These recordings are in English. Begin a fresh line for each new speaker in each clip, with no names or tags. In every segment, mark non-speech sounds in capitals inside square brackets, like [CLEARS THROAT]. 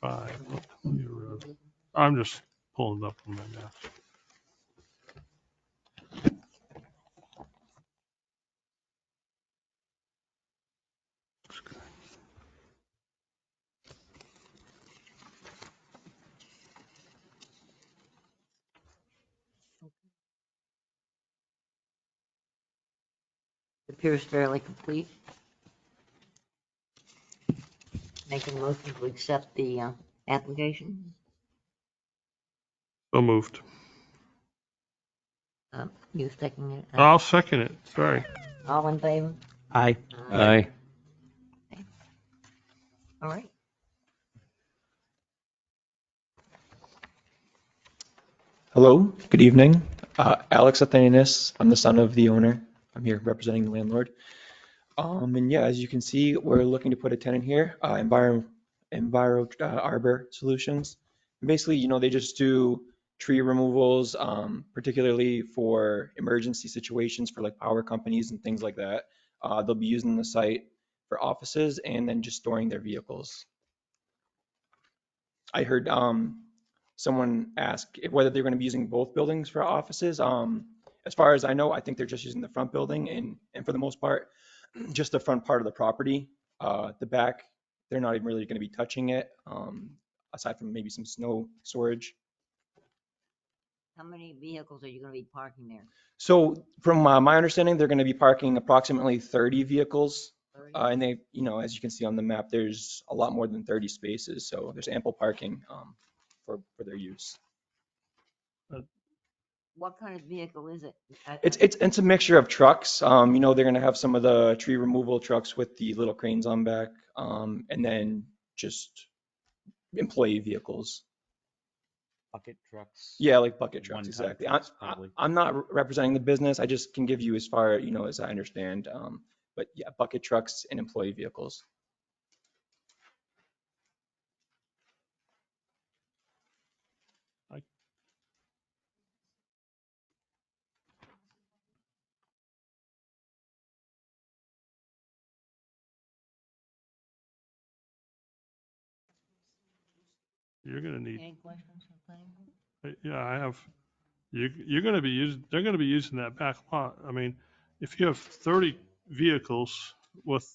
five. Let me read it. I'm just pulling it up on my desk.
appears fairly complete. Make a motion to accept the uh, application.
So moved.
Uh, You second it? Uh,
I'll second it. Sorry.
All in favor?
Aye.
Aye.
All right.
Hello, good evening. Uh, Alex Athanasis, I'm the son of the owner. I'm here representing the landlord. Um, and yeah, as you can see, we're looking to put a tenant here, uh, Enviro, Enviro uh, Arbor Solutions. Basically, you know, they just do tree removals, um, particularly for emergency situations for like power companies and things like that. Uh, they'll be using the site for offices and then just storing their vehicles. I heard, um, someone asked if- whether they're going to be using both buildings for offices. Um, as far as I know, I think they're just using the front building and, and for the most part, [CLEARS THROAT] just the front part of the property. Uh, the back, they're not even really going to be touching it, um, aside from maybe some snow storage.
How many vehicles are you going to be parking there?
So from uh, my understanding, they're going to be parking approximately 30 vehicles.
Thirty?
Uh, and they, you know, as you can see on the map, there's a lot more than 30 spaces. So there's ample parking, um, for, for their use.
What kind of vehicle is it? Uh, I-
It's, it's, it's a mixture of trucks. Um, you know, they're gonna have some of the tree removal trucks with the little cranes on back, um, and then just employee vehicles.
Bucket trucks.
Yeah, like bucket trucks,
One-ton
exactly. I,
trucks,
I-
probably.
I'm not representing the business. I just can give you as far, you know, as I understand. Um, but yeah, bucket trucks and employee vehicles.
You're gonna need,
Any questions from planning board?
yeah, I have, you, you're gonna be using, they're gonna be using that back lot. I mean, if you have thirty vehicles with,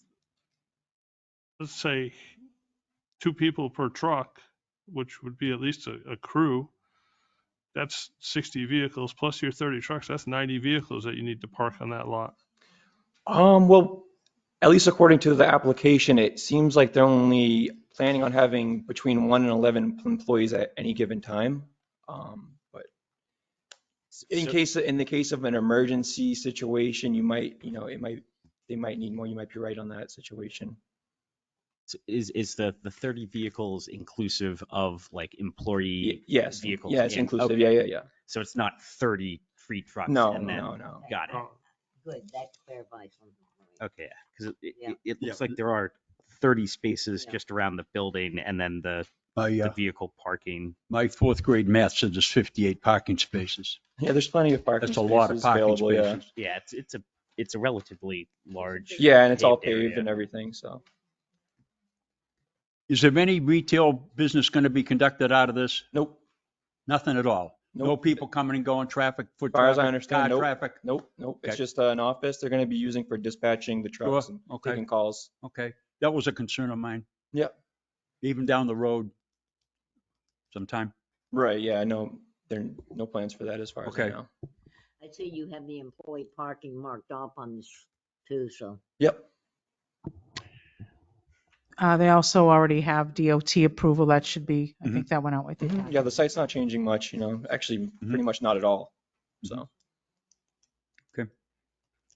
let's say, two people per truck, which would be at least a, a crew, that's sixty vehicles plus your thirty trucks, that's ninety vehicles that you need to park on that lot.
Um, well, at least according to the application, it seems like they're only planning on having between one and 11 employees at any given time. Um, but in
So-
case, in the case of an emergency situation, you might, you know, it might, they might need more. You might be right on that situation.
So Is, is the, the 30 vehicles inclusive of like
Y-
employee?
Yes,
vehicles
yes,
in.
inclusive.
Okay.
Yeah, yeah, yeah.
So it's not 30 free trucks?
No,
and then-
no, no.
Got it.
Good, that clarifies something. for me.
Okay, because it,
Yeah.
it, it looks like there are 30 spaces
Yeah.
just around the building and then the,
My,
the
uh,
vehicle parking.
my fourth grade math said there's 58 parking spaces.
Yeah, there's plenty of parking
That's a lot of
spaces
parking
available. Yeah.
spaces.
Yeah, it's, it's a, it's a relatively large.
Yeah, and it's all
Paved area.
paved and everything. So
Is there any retail business going to be conducted out of this?
nope,
Nothing at all? No
Nope.
people coming and going, traffic, foot
Far as I
traffic,
understand,
car
nope.
traffic?
nope, nope. It's
Okay.
just uh, an office they're going to be using for dispatching the
Sure,
trucks and
okay,
taking calls.
okay. That was a concern of mine.
Yep.
Even down the road sometime.
Right, yeah, no, there are no plans for that as far as I
Okay.
know.
I see you have the employee parking marked off on this too, so.
Yep,
Uh, they also already have DOT approval. That should be, I
Mhm.
think that went out with it.
mm-hmm, yeah, the site's not changing much, you know, actually,
Mm-hmm.
pretty much not at all, so.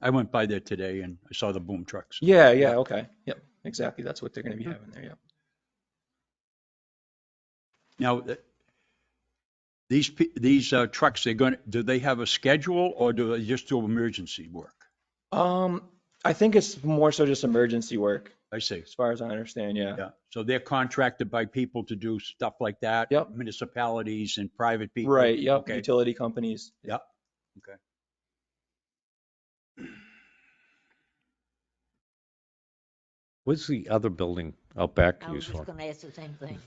I went by there today and I saw the boom trucks.
Yeah, yeah, okay, yep, exactly, that's what they're gonna be
Mm-hmm.
having there, yep.
Now, th- these, pe- these uh, trucks, they're going, to do they have a schedule or do they just do emergency work?
Um, I think it's more so just emergency work,
I see.
as far as I understand, yeah.
Yeah, so they're contracted by people to do stuff like that?
Yep.
Municipalities and private people?
Right, yep,
Okay,
utility companies.
yep.
What's the other building out back
I was
used
just
for?
Oh, going to ask the same thing.